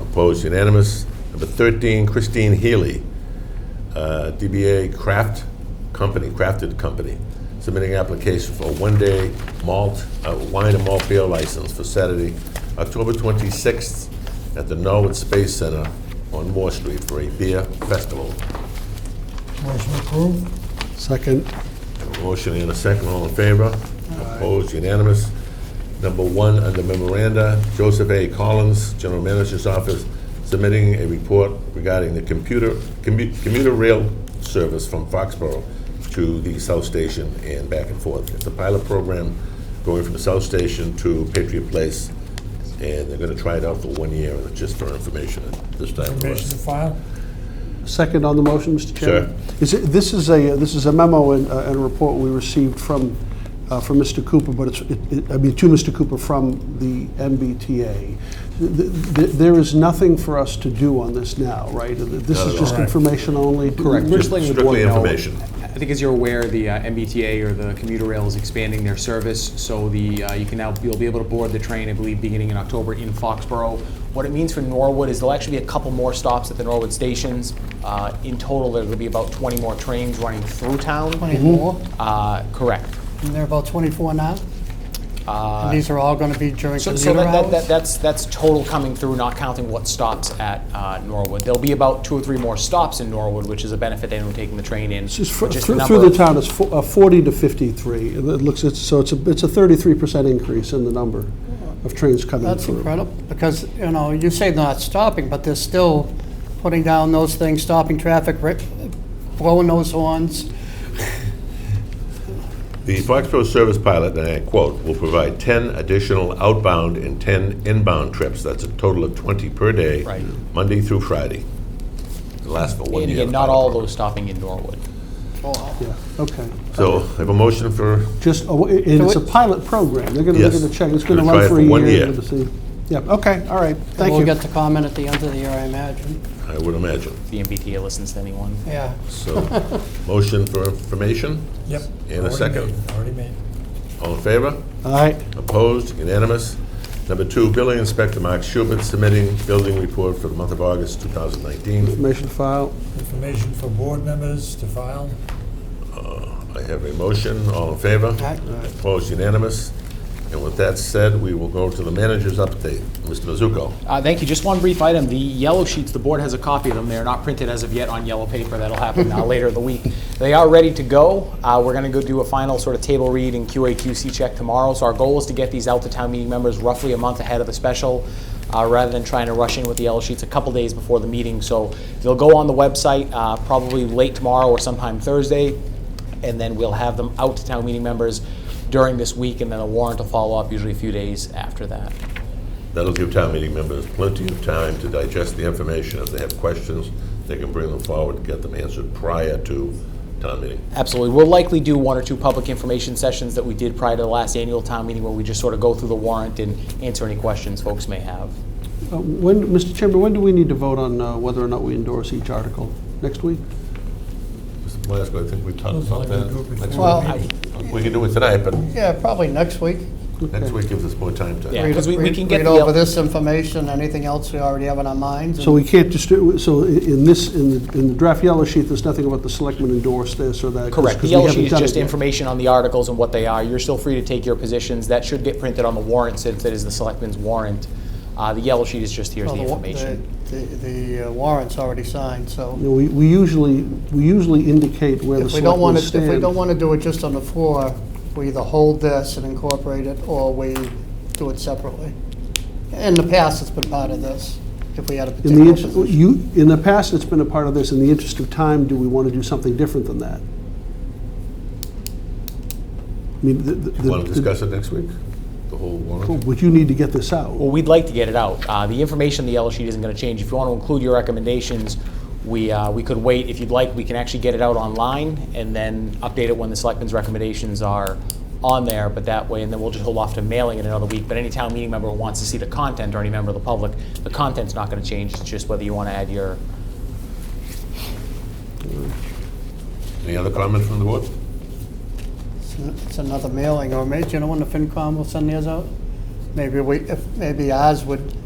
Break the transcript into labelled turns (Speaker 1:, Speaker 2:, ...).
Speaker 1: Opposed, unanimous. Number 13, Christine Healy, uh, DBA Craft Company, Crafted Company, submitting application for a one-day malt, uh, wine and malt beer license for Saturday, October 26th, at the Norwood Space Center on Moore Street for a beer festival.
Speaker 2: Motion approved.
Speaker 3: Second,
Speaker 1: Have a motion and a second, all in favor? Opposed, unanimous. Number one, under memoranda, Joseph A. Collins, General Manager's Office, submitting a report regarding the computer, commu- commuter rail service from Foxborough to the South Station and back and forth. It's a pilot program going from the South Station to Patriot Place, and they're gonna try it out for one year, and it's just for information at this time.
Speaker 2: Permission to file.
Speaker 3: second on the motion, Mr. Chairman?
Speaker 1: Sure.
Speaker 3: Is it, this is a, uh, this is a memo and, uh, and a report we received from, uh, from Mr. Cooper, but it's, it- it- I mean, to Mr. Cooper from the MBTA. Th- th- th- There is nothing for us to do on this now, right? This
Speaker 1: Not
Speaker 3: is
Speaker 1: at
Speaker 3: just
Speaker 1: all.
Speaker 3: information only?
Speaker 4: Correct. We're just letting the board
Speaker 1: Strictly
Speaker 4: know.
Speaker 1: information.
Speaker 4: I think as you're aware, the uh, MBTA or the commuter rail is expanding their service, so the, uh, you can now, you'll be able to board the train, I believe, beginning in October in Foxborough. What it means for Norwood is there'll actually be a couple more stops at the Norwood stations. Uh, In total, there'll be about 20 more trains running through town.
Speaker 2: 24,
Speaker 4: Uh, Correct.
Speaker 2: and there are about 24 now? And these are all going to be during
Speaker 4: Uh, So, so
Speaker 2: commuter
Speaker 4: that, that, that,
Speaker 2: hours?
Speaker 4: that's that's total coming through, not counting what stops at uh, Norwood. There'll be about two or three more stops in Norwood, which is a benefit to anyone taking the train in.
Speaker 3: It's fr-
Speaker 4: but just
Speaker 3: Through
Speaker 4: number
Speaker 3: through the
Speaker 4: of-
Speaker 3: town, it's fo- uh, 40 to 53. It looks, it's- so it's a, it's a 33% increase in the number of trains coming
Speaker 2: That's
Speaker 3: through.
Speaker 2: incredible, because, you know, you say not stopping, but they're still putting down those things, stopping traffic, ri- blowing those horns.
Speaker 1: The Foxborough service pilot, and I quote, "will provide 10 additional outbound and 10 inbound trips." That's a total of 20 per day.
Speaker 4: Right.
Speaker 1: Monday through Friday. It lasts for one
Speaker 4: And
Speaker 1: year.
Speaker 4: again, not all those stopping in Norwood.
Speaker 3: Yeah, okay.
Speaker 1: So I have a motion for,
Speaker 3: Just, oh, i- and it's a
Speaker 2: it-
Speaker 3: pilot program. They're gonna, they're
Speaker 1: Yes.
Speaker 3: gonna check, it's gonna
Speaker 1: Gonna try
Speaker 3: run
Speaker 1: it
Speaker 3: for
Speaker 1: for
Speaker 3: a year.
Speaker 1: one year.
Speaker 3: We're gonna see. Yep, okay, all right, thank
Speaker 2: We'll
Speaker 3: you.
Speaker 2: get the comment at the end of the year, I imagine.
Speaker 1: I would imagine.
Speaker 4: The MBTA listens to anyone.
Speaker 2: Yeah.
Speaker 1: So, motion for information
Speaker 5: Yep.
Speaker 1: and a
Speaker 5: Already
Speaker 1: second.
Speaker 5: made, Already made.
Speaker 1: All in favor?
Speaker 3: All right,
Speaker 1: Opposed? Unanimous? Number two, Building Inspector Mark Schubert submitting building report for the month of August 2019.
Speaker 3: information file,
Speaker 5: Information for board members to file.
Speaker 1: I have a motion. All in favor?
Speaker 2: Aye.
Speaker 1: Opposed, unanimous. And with that said, we will go to the manager's update. Mr. Mizuko.
Speaker 4: Uh, Thank you. Just one brief item. The yellow sheets, the board has a copy of them. They're not printed as of yet on yellow paper. That'll happen uh, later in the week. They are ready to go. Uh, We're going to go do a final sort of table read and QA/QC check tomorrow. So our goal is to get these out to town meeting members roughly a month ahead of the special, uh, rather than trying to rush in with the yellow sheets a couple days before the meeting. So they'll go on the website uh, probably late tomorrow or sometime Thursday and then we'll have them out to town meeting members during this week, and then a warrant will follow up usually a few days after that.
Speaker 1: That'll give town meeting members plenty of time to digest the information. If they have questions, they can bring them forward, and get them answered prior to town meeting.
Speaker 4: Absolutely. We'll likely do one or two public information sessions that we did prior to the last annual town meeting, where we just sort of go through the warrant and answer any questions folks may have.
Speaker 3: Uh, when, Mr. Chairman, when do we need to vote on uh, whether or not we endorse each article? Next week?
Speaker 1: Mr. Plasko, I think we talked
Speaker 5: Those are
Speaker 1: about
Speaker 5: like the group
Speaker 1: that.
Speaker 5: before
Speaker 2: Well,
Speaker 5: the
Speaker 2: I-
Speaker 5: meeting.
Speaker 1: We can do it tonight, but
Speaker 2: Yeah, probably next week.
Speaker 1: next week gives us more time to.
Speaker 4: Yeah.
Speaker 2: Read-
Speaker 4: 'cause we- we
Speaker 2: read-
Speaker 4: can get
Speaker 2: Read
Speaker 4: the- uh,
Speaker 2: over this information, anything else we already have on our minds.
Speaker 3: So we can't just, do- so i- in this, in the, in the draft yellow sheet, there's nothing about the selectmen endorse this or that. 'cause-
Speaker 4: Correct. The
Speaker 3: 'cause we
Speaker 4: yellow
Speaker 3: haven't
Speaker 4: sheet is
Speaker 3: done it
Speaker 4: just
Speaker 3: yet.
Speaker 4: information on the articles and what they are. You're still free to take your positions. That should get printed on the warrant since it is the selectmen's warrant. Uh, The yellow sheet is just here's
Speaker 2: Well,
Speaker 4: the
Speaker 2: wa-
Speaker 4: information.
Speaker 2: the- The the, uh, warrant's already signed, so
Speaker 3: You know, We, we usually, we usually indicate where the
Speaker 2: if we don't
Speaker 3: selectmen
Speaker 2: want to,
Speaker 3: stand.
Speaker 2: if we don't want to do it just on the floor, we either hold this and incorporate it, or we do it separately. In the past, it's been part of this, if we had a
Speaker 3: In the,
Speaker 2: particular
Speaker 3: inter-
Speaker 2: position.
Speaker 3: you, in the past, it's been a part of this, in the interest of time, do we want to do something different than that? I mean, the- the-
Speaker 1: Want to
Speaker 3: the- oh,
Speaker 1: discuss it next week? The whole warrant?
Speaker 3: would you need to get this
Speaker 4: Well,
Speaker 3: out?
Speaker 4: we'd like to get it out. Uh, The information, in the yellow sheet isn't going to change. If you want to include your recommendations, we, uh, we could wait. If you'd like, we can actually get it out online and then update it when the selectmen's recommendations are on there, but that way, and then we'll just hold off to mailing it another week. But any town meeting member who wants to see the content or any member of the public, the content's not going to change. It's just whether you want to add your,
Speaker 1: Any other comment from the board?
Speaker 2: It's an- It's another mailing, or maybe, you know when the FinCom will send theirs out? Maybe we, if, maybe ours would